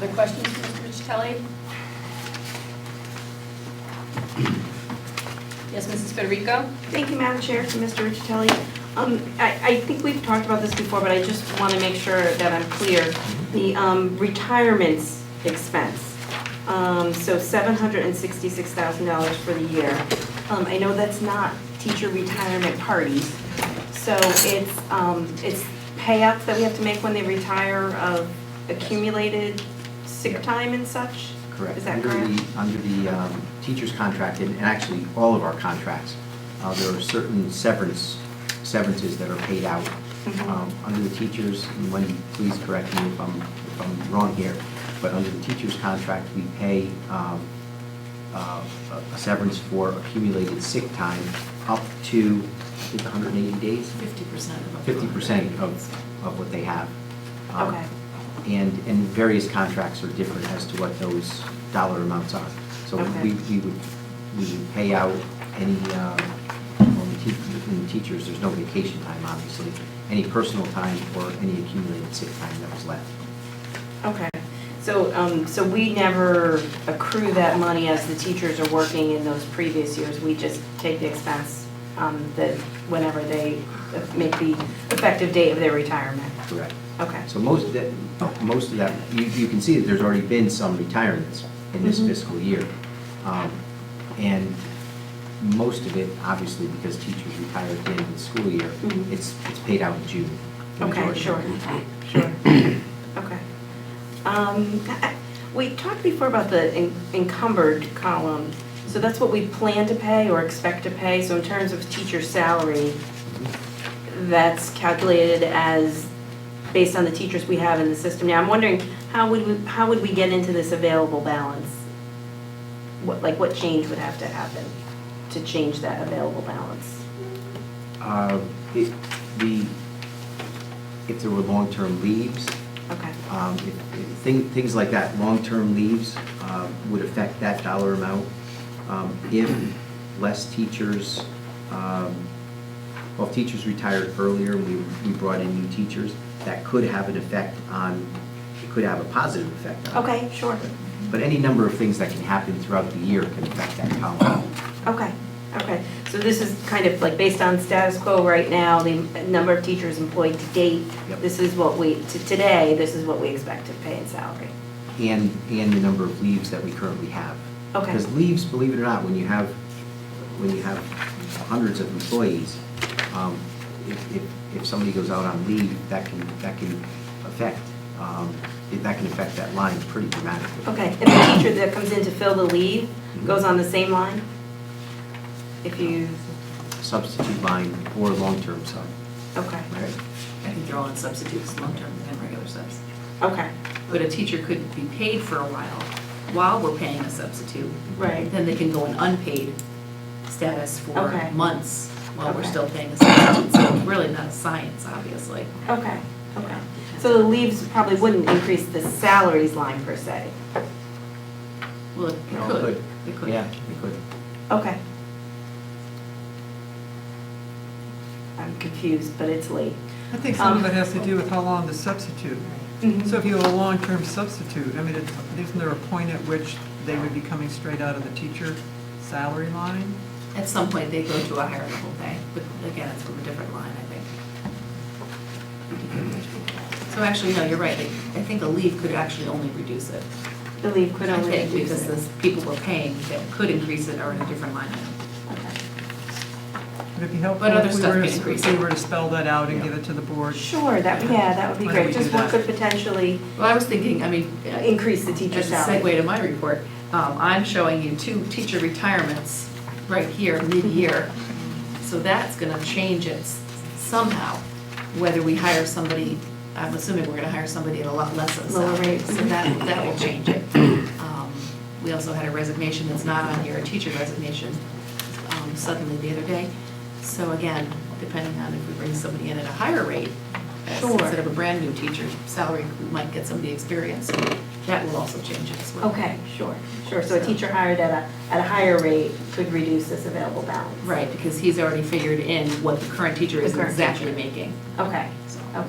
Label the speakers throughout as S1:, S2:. S1: Other questions for Mr. Ricitelli? Yes, Mrs. Federico?
S2: Thank you, Madam Chair, to Mr. Ricitelli. Um, I, I think we've talked about this before, but I just want to make sure that I'm clear. The um, retirements expense, um, so $766,000 for the year. Um, I know that's not teacher retirement parties, so it's, um, it's payouts that we have to make when they retire of accumulated sick time and such?
S3: Correct.
S2: Is that
S3: Under
S2: correct?
S3: the- Under the um, teacher's contract, and and actually all of our contracts, uh, there are certain severance, severances that are paid out.
S2: Mhm.
S3: Um, Under the teachers, and Wendy, please correct me if I'm, if I'm wrong here, but under the teacher's contract, we pay um, uh, a a severance for accumulated sick time up to, I think, 180 days?
S4: Fifty percent of.
S3: fifty percent of, of what they have. Um,
S2: Okay.
S3: And, and various contracts are different as to what those dollar amounts are. So
S2: Okay.
S3: we, we would, we would pay out any, um, well, the tea- in teachers, there's no vacation time, obviously, any personal time or any accumulated sick time that was left.
S2: Okay, so, um, so we never accrue that money as the teachers are working in those previous years, we just take the expense, um, that whenever they make the effective date of their retirement?
S3: Correct.
S2: Okay,
S3: So most of that, most of that, you, you can see that there's already been some retirements in this
S2: Mhm.
S3: fiscal year. Um, And most of it, obviously, because teachers retire at the end of the school year,
S2: Mhm.
S3: it's, it's paid out in June. the
S2: okay,
S3: majority of
S2: sure,
S3: it.
S2: sure, okay. Um, I- I- we talked before about the en- encumbered column, so that's what we plan to pay or expect to pay, so in terms of teacher salary, that's calculated as based on the teachers we have in the system now. I'm wondering, how would we, how would we get into this available balance? What, like, what change would have to happen to change that available balance?
S3: Uh, it- The, if there were long-term leaves,
S2: Okay,
S3: um, if- if thing- things like that, long-term leaves uh, would affect that dollar amount. Um, If less teachers, um, well, if teachers retired earlier, and we we brought in new teachers, that could have an effect on, it could have a positive effect on. it.
S2: okay, sure,
S3: But any number of things that can happen throughout the year can affect that column.
S2: okay, okay. So this is kind of like based on status quo right now, the number of teachers employed to date.
S3: Yep.
S2: This is what we, to today, this is what we expect to pay in salary.
S3: and, and the number of leaves that we currently have.
S2: Okay.
S3: Because leaves, believe it or not, when you have, when you have hundreds of employees, um, if, if, if somebody goes out on leave, that can, that can affect, um, it- that can affect that line pretty dramatically.
S2: Okay, and the teacher that comes in to fill the leave
S3: Mm-hmm.
S2: goes on the same line? If you,
S3: Substitute line or long-term sub,
S2: okay,
S3: right?
S4: I can throw in substitutes, long-term and regular subs.
S2: okay,
S4: But a teacher could be paid for a while, while we're paying a substitute.
S2: right,
S4: Then they can go in unpaid status for
S2: Okay.
S4: months while we're
S2: Okay.
S4: still paying a substitute. So it's really not a science, obviously.
S2: okay, okay. So the leaves probably wouldn't increase the salaries line per se?
S4: Well, it
S3: No, it
S4: could,
S3: could.
S4: it could.
S3: Yeah, it could.
S2: Okay. I'm confused, but it's late.
S5: I think some of
S2: Um,
S5: it has to do with how long the substitute.
S4: Mm-hmm.
S5: So if you have a long-term substitute, I mean, it's- isn't there a point at which they would be coming straight out of the teacher salary line?
S4: At some point, they go to a higher level pay, but again, it's from a different line, I think. So actually, no, you're right. I think a leave could actually only reduce it.
S2: The leave could
S4: I
S2: only
S4: think because
S2: reduce
S4: the
S2: it.
S4: people we're paying that could increase it are in a different line item.
S2: Okay.
S5: Would it be helpful
S4: But other
S5: if we
S4: stuff
S5: were,
S4: can
S5: to-
S4: increase
S5: if we
S4: it.
S5: were to spell that out and give it to the board?
S2: Sure, that, yeah, that would be
S5: Why don't
S2: great.
S5: we
S2: Just
S5: do
S2: what could
S5: that?
S2: potentially
S4: Well, I was thinking, I mean, uh,
S2: increase the teacher
S4: as a
S2: salary.
S4: segue to my report, um, I'm showing you two teacher retirements right here, mid-year. So that's gonna change it s- somehow, whether we hire somebody, I'm assuming we're gonna hire somebody at a lot less of a
S2: Lower
S4: salary.
S2: rate.
S4: So that, that will change it. Um, We also had a resignation that's not on here, a teacher resignation um, suddenly the other day. So again, depending on if we bring somebody in at a higher rate, as-
S2: Sure.
S4: instead of a brand-new teacher salary, we might get somebody experienced. That will also change it as well.
S2: Okay, sure, sure. So a teacher hired at a, at a higher rate could reduce this available balance?
S4: Right, because he's already figured in what the current teacher
S2: The
S4: is
S2: current
S4: exactly
S2: teacher.
S4: making,
S2: Okay,
S4: so.
S2: okay.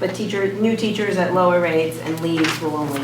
S2: But teacher, new teachers at lower rates and leaves will only